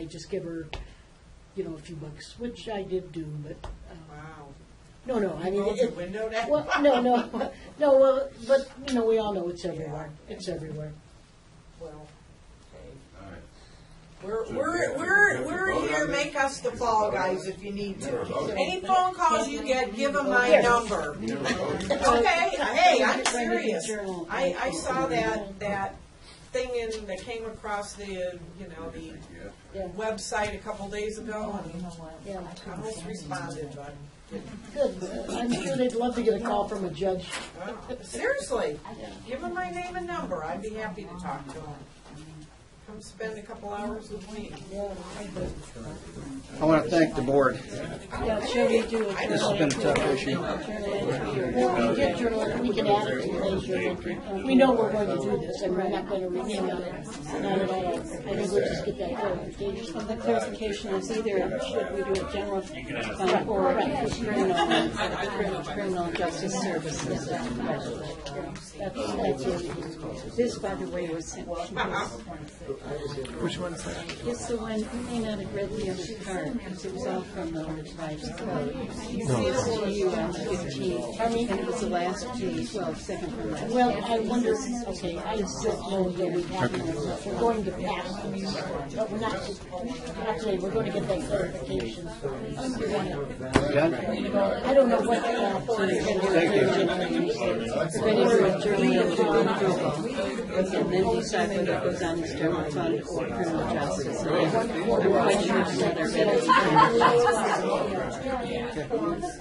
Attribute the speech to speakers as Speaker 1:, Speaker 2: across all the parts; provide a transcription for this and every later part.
Speaker 1: I just give her, you know, a few bucks, which I did do, but, uh,
Speaker 2: Wow.
Speaker 1: no, no, I mean.
Speaker 2: Rolled the
Speaker 1: it-
Speaker 2: window down?
Speaker 1: Well, no, no, no, well, but, you know, we all know it's everywhere,
Speaker 2: Yeah.
Speaker 1: it's everywhere.
Speaker 2: Well, okay.
Speaker 3: All right.
Speaker 2: We're,
Speaker 3: So we have
Speaker 2: we're,
Speaker 3: to-
Speaker 2: we're,
Speaker 3: we have to
Speaker 2: we're
Speaker 3: vote
Speaker 2: here,
Speaker 3: on this?
Speaker 2: make us the fall guys if you need to.
Speaker 3: Never voted.
Speaker 2: Any phone calls you get, give them my
Speaker 1: Yes.
Speaker 2: number.
Speaker 3: We never voted.
Speaker 2: Okay, hey, I'm
Speaker 1: Just trying to
Speaker 2: serious.
Speaker 1: journal.
Speaker 2: I, I saw that, that thing in, that came across the, you know, the
Speaker 3: Yeah.
Speaker 1: Yeah,
Speaker 2: website a couple days ago and
Speaker 1: yeah,
Speaker 2: I almost responded, but,
Speaker 1: good, I'm sure they'd love to get a call from a judge.
Speaker 2: uh, seriously, give them my name and number, I'd be happy to talk to them. Come spend a couple hours with me.
Speaker 1: Yeah,
Speaker 4: I want to thank the board.
Speaker 1: Yeah, sure we do.
Speaker 4: This has been a tough issue.
Speaker 1: Well, we did journal, we can add it to today's journal. We know we're going to do this, and we're not going to rename it, not at all. I think we'll just get that clarification.
Speaker 5: Well, the clarification is either should we do a general fund or criminal, criminal justice services.
Speaker 1: That's, that's it.
Speaker 5: This, by the way, was sent to us. Which one's that? It's the one, you may not have read the other part, because it was all from the revised code. It's to you on the 15th, and it was the last page, well, second from last.
Speaker 1: Well, I wonder, okay, I just know that we have, to- we're going to pass these, but we're not, not today, we're going to get that clarification.
Speaker 4: Done?
Speaker 1: I don't know what.
Speaker 5: Ready for a journal approval, and then decide whether it goes on the general fund or criminal justice. I'm quite sure it's another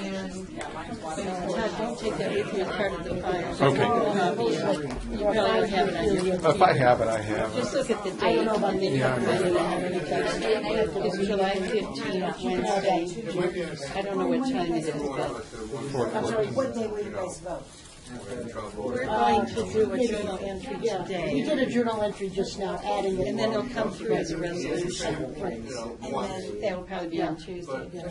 Speaker 5: ready. And, Todd, uh, don't take that with you as part of the file. Okay. You probably have it on your,
Speaker 6: If I have it, I have it.
Speaker 5: just look at the date, and then you have it. It's July fifteenth, Wednesday. I don't know what time it is, but
Speaker 1: I'm sorry, what day were you guys vote?
Speaker 5: we're going to do a journal entry
Speaker 1: Yeah,
Speaker 5: today.
Speaker 1: we did a journal entry just now, adding it.
Speaker 5: And then it'll come through as a resolution. That'll probably be on Tuesday.
Speaker 1: Well, we-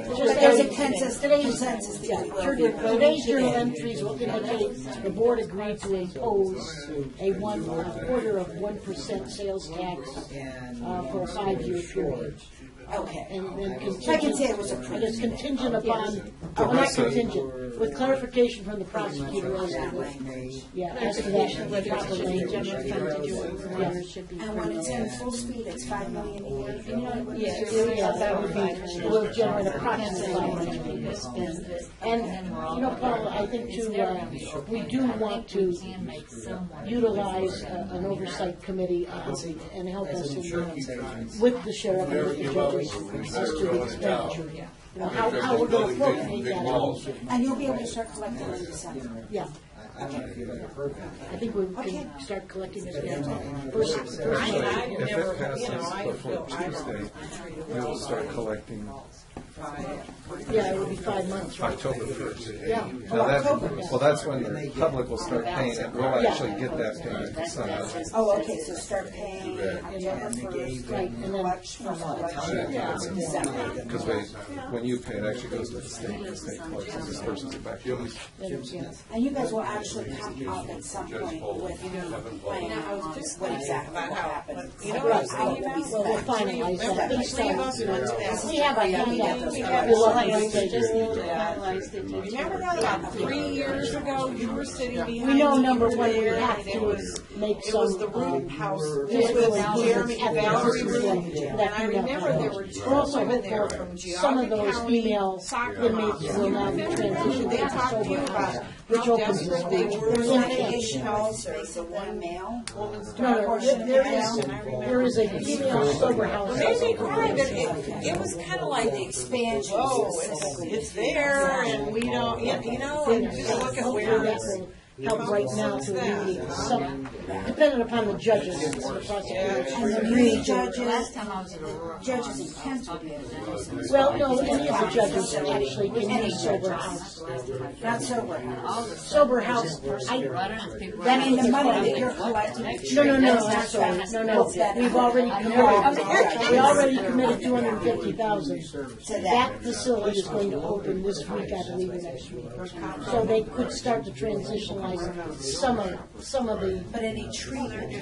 Speaker 1: just
Speaker 7: there's a
Speaker 1: adding-
Speaker 7: consensus, consensus that
Speaker 1: Yeah,
Speaker 7: we
Speaker 1: sure
Speaker 7: will be
Speaker 1: did. Today's journal
Speaker 7: voting
Speaker 1: entries will indicate the board agreed to impose a one, a quarter of one percent sales tax uh, for a five-year period.
Speaker 7: today. Okay.
Speaker 1: And then contingent.
Speaker 7: I can say it was approved.
Speaker 1: And it's contingent upon, well, not contingent, with clarification from the prosecutor as to what, yeah, as to
Speaker 5: Clarification
Speaker 1: that
Speaker 5: whether it
Speaker 1: proper
Speaker 5: should be
Speaker 1: language.
Speaker 5: general fund to do it or it should be
Speaker 7: And when
Speaker 5: criminal.
Speaker 7: it's in full speed, it's five million a year.
Speaker 5: Yes,
Speaker 1: Yeah,
Speaker 5: yes,
Speaker 1: that would be, will generate approximately how much
Speaker 5: Depends on how much people spend it.
Speaker 1: And, you know, Paul, I think too, uh, we do want to utilize uh, an oversight committee uh, and help us in, uh, with the sheriff and with the judges as to the expenditure. You know, how, how we're gonna appropriate
Speaker 3: Big
Speaker 1: that.
Speaker 3: walls.
Speaker 7: And you'll be able to start collecting in December.
Speaker 1: Yeah. I think we
Speaker 7: Okay.
Speaker 1: can start collecting this data. First, first,
Speaker 2: I, I
Speaker 6: If
Speaker 2: never,
Speaker 6: it
Speaker 2: you know,
Speaker 6: passes
Speaker 2: I
Speaker 6: before
Speaker 2: feel, I
Speaker 6: Tuesday, we'll start collecting
Speaker 1: yeah, it would be five months, right?
Speaker 6: October first.
Speaker 1: Yeah.
Speaker 6: Now that, well, that's when the public will start paying it. We'll actually get that payment somehow.
Speaker 7: Oh, okay, so start paying October first,
Speaker 1: Right, and then,
Speaker 7: watch from election, December.
Speaker 6: Because they, when you pay, it actually goes to the state, the state collects, it disperses it back. to us.
Speaker 1: then, yeah.
Speaker 7: And you guys will actually come up at some point with a plan on what exactly will happen.
Speaker 2: You know what I'm saying?
Speaker 1: Well, we'll finalize that based on, you know, we have our handout. We'll
Speaker 5: Finalized,
Speaker 1: update
Speaker 5: just
Speaker 1: it.
Speaker 5: finalized it.
Speaker 2: Remember that about three years ago, you were sitting behind.
Speaker 1: We know
Speaker 2: me
Speaker 1: number one, we
Speaker 2: there,
Speaker 1: have
Speaker 2: and it
Speaker 1: to
Speaker 2: was-
Speaker 1: make
Speaker 2: It was
Speaker 1: some,
Speaker 2: the
Speaker 1: um,
Speaker 2: room house, it
Speaker 1: physical
Speaker 2: was Jeremy
Speaker 1: at the
Speaker 2: Valerie
Speaker 1: versus
Speaker 2: room,
Speaker 1: the-
Speaker 2: and
Speaker 1: that
Speaker 2: I
Speaker 1: peanut
Speaker 2: remember there were
Speaker 1: butter.
Speaker 2: two
Speaker 1: We're also
Speaker 2: women there
Speaker 1: hopeful
Speaker 2: from
Speaker 1: some of
Speaker 2: Geogga
Speaker 1: those
Speaker 2: County
Speaker 1: female
Speaker 2: soccer
Speaker 1: inmates
Speaker 2: moms.
Speaker 1: will now transition
Speaker 2: They
Speaker 1: to
Speaker 2: talked to you
Speaker 1: sober
Speaker 2: about
Speaker 1: house,
Speaker 2: how
Speaker 1: which opens this
Speaker 2: desperate they
Speaker 1: whole.
Speaker 2: were,
Speaker 1: within
Speaker 2: like,
Speaker 1: camp.
Speaker 2: you know, there's a
Speaker 7: One
Speaker 2: one
Speaker 7: mail.
Speaker 2: woman's
Speaker 1: No, no,
Speaker 2: portion
Speaker 1: there-
Speaker 2: of
Speaker 1: there
Speaker 2: the
Speaker 1: is,
Speaker 2: town, I remember.
Speaker 1: there is a female sober house.
Speaker 2: Made me cry, but it, it was kind of like the expansion. Oh, it's, it's there, and we don't, yeah, you know, and you look at
Speaker 1: Hopefully
Speaker 2: where
Speaker 1: that
Speaker 2: it's.
Speaker 1: will help right now to alleviate some, depending upon the judges, the prosecutors.
Speaker 7: And the three judges, judges in Kent will be able to do some.
Speaker 1: Well, no, any of the judges actually can use sober house.
Speaker 7: Not sober house.
Speaker 1: Sober house, I,
Speaker 7: I mean, the money that you're collecting.
Speaker 1: no, no, no, I'm sorry, no, no, we've already committed, we already committed two hundred and fifty thousand. That facility is going to open this week, I believe, or next week. So they could start to transition
Speaker 8: finalize some of, some of the
Speaker 1: But any tree.